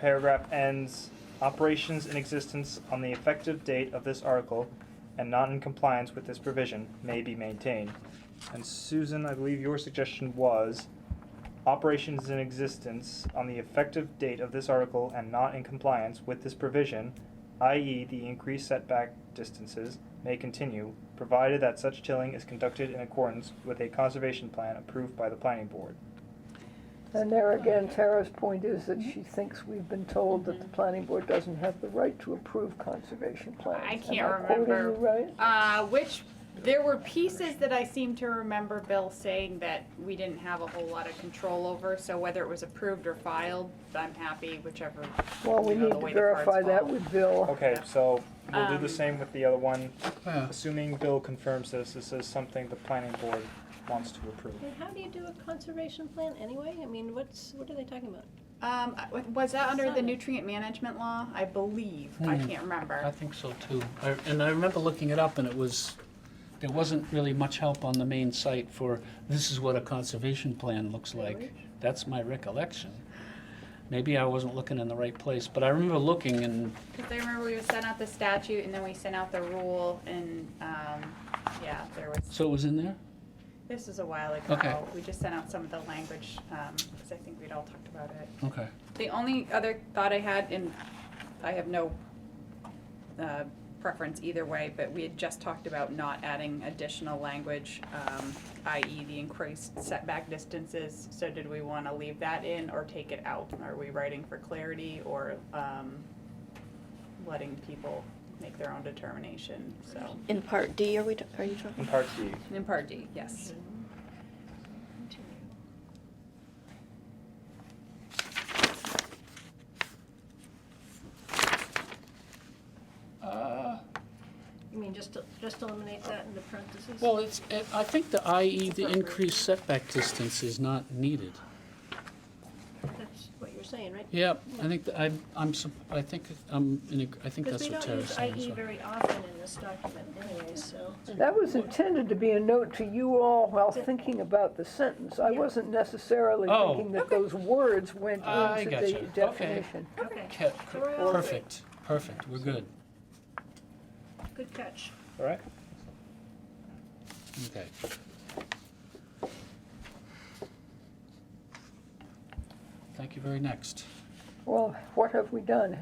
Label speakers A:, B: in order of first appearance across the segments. A: paragraph ends operations in existence on the effective date of this article and not in compliance with this provision may be maintained. And Susan, I believe your suggestion was operations in existence on the effective date of this article and not in compliance with this provision, i.e. the increased setback distances, may continue, provided that such tilling is conducted in accordance with a conservation plan approved by the planning board.
B: And there again, Tara's point is that she thinks we've been told that the planning board doesn't have the right to approve conservation plans.
C: I can't
B: Am quoting
C: remember.
B: you right?
C: Uh, which, there were pieces that I seem to remember Bill saying that we didn't have a whole lot of control over, so whether it was approved or filed, I'm happy whichever.
B: Well, we
C: you know,
B: need
C: the
B: to
C: way the cards
B: verify that
C: fall.
B: with Bill.
A: Okay, so we'll do
C: Um,
A: the same with the other one.
D: Yeah.
A: Assuming Bill confirms this, this is something the planning board wants to approve.
E: And how do you do a conservation plan anyway? I mean, what's, what are they talking about?
C: Um, was that under the
E: Seven.
C: nutrient management law? I believe, I
D: Hmm.
C: can't
D: I
C: remember.
D: think so too. I- And I remember looking it up and it was, there wasn't really much help on the main site for, this is what a conservation plan looks like.
E: Really?
D: That's my recollection. Maybe I wasn't looking in the right place, but I remember looking and,
C: Cause I remember we sent out the statute and then we sent out the rule and, um, yeah, there was,
D: so it was in there?
C: this was a while
D: Okay.
C: ago. We just sent out some of the language, um, cause I think we'd all talked about it.
D: Okay.
C: The only other thought I had, and I have no uh, preference either way, but we had just talked about not adding additional language, um, i.e. the increased setback distances. So did we want to leave that in or take it out? Are we writing for clarity or um, letting people make their own determination? So,
F: In part D, are we, t- are you
A: In
F: talking?
A: part D,
C: in part D, yes.
D: Uh,
E: You mean just, just eliminate that in the parentheses?
D: Well, it's, it- I think the IE, the
C: Appropriate.
D: increased setback distance is not needed.
E: That's what you're saying, right?
D: Yeah, I think, that I'm, I'm, sup- I think, I'm, in ag- I think
E: Because
D: that's
E: we
D: what
E: don't
D: Tara's
E: use E
D: saying. as
E: IE
D: well.
E: very often in this document anyway, so.
B: That was intended to be a note to you all while thinking about the sentence. I
E: Yeah.
B: wasn't necessarily
D: Oh.
B: thinking that those words went
D: I
B: into
D: gotcha.
B: the
D: Okay.
B: definition.
E: Okay,
D: Ca-
E: We're all good.
D: Perfect, perfect, we're good.
E: good catch.
A: all right?
D: Okay. Thank you very next.
B: Well, what have we done?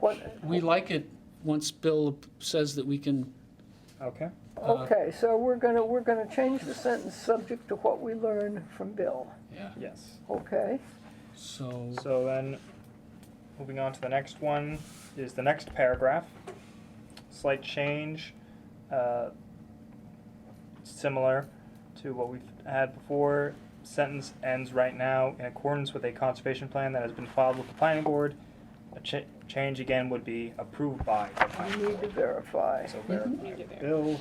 B: What,
D: We like it once Bill says that we can,
A: Okay,
D: uh,
B: okay, so we're gonna, we're gonna change the sentence subject to what we learn from Bill,
D: yeah,
A: yes.
B: okay?
D: so,
A: So then, moving on to the next one is the next paragraph. Slight change, uh, similar to what we've had before. Sentence ends right now in accordance with a conservation plan that has been filed with the planning board. A cha- change again would be approved by the planning
B: We need to verify
A: board. So verify.
C: Need to verify.
A: Bill,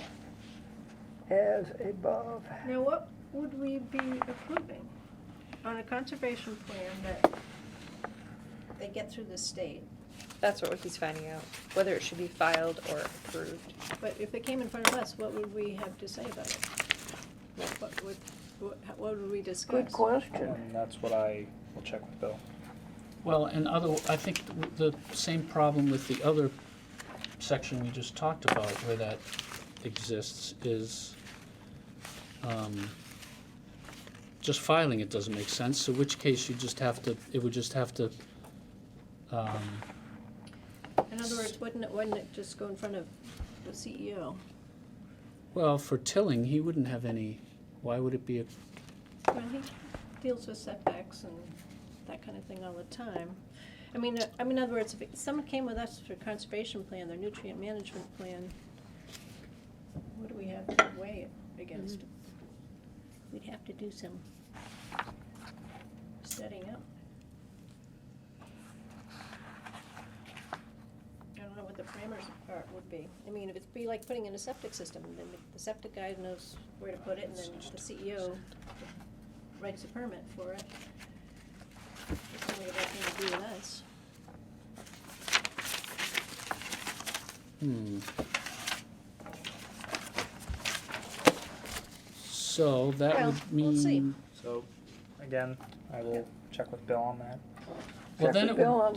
B: as above.
E: Now, what would we be approving on a conservation plan that they get through the state?
G: That's what he's finding out, whether it should be filed or approved.
E: But if it came in front of us, what would we have to say about it? What would, what what would we discuss?
B: Good question.
A: and Um, that's what I will check with Bill.
D: well, and other, I think the same problem with the other section we just talked about where that exists is, um, just filing it doesn't make sense, so which case you just have to, it would just have to, um,
E: In other words, wouldn't it, wouldn't it just go in front of the E CEO?
D: Well, for tilling, he wouldn't have any, why would it be, a
E: Well, he deals with setbacks and that kind of thing all the time. I mean, uh, I mean, in other words, if it- someone came with us for conservation plan, their nutrient management plan, what do we have to weigh it against? Mm-hmm. We'd have to do some setting up. I don't know what the parameters are, would be. I mean, if it'd be like putting in a septic system, and then the septic guy knows where to put it, and then the CEO writes a permit for it. It's only about to do with us.
D: hmm. So that
E: Well,
D: would
E: we'll see.
D: mean,
A: So, again, I will check with Bill on that.
D: well,
B: Check
D: then
B: with
D: it
B: Bill
D: would,
B: on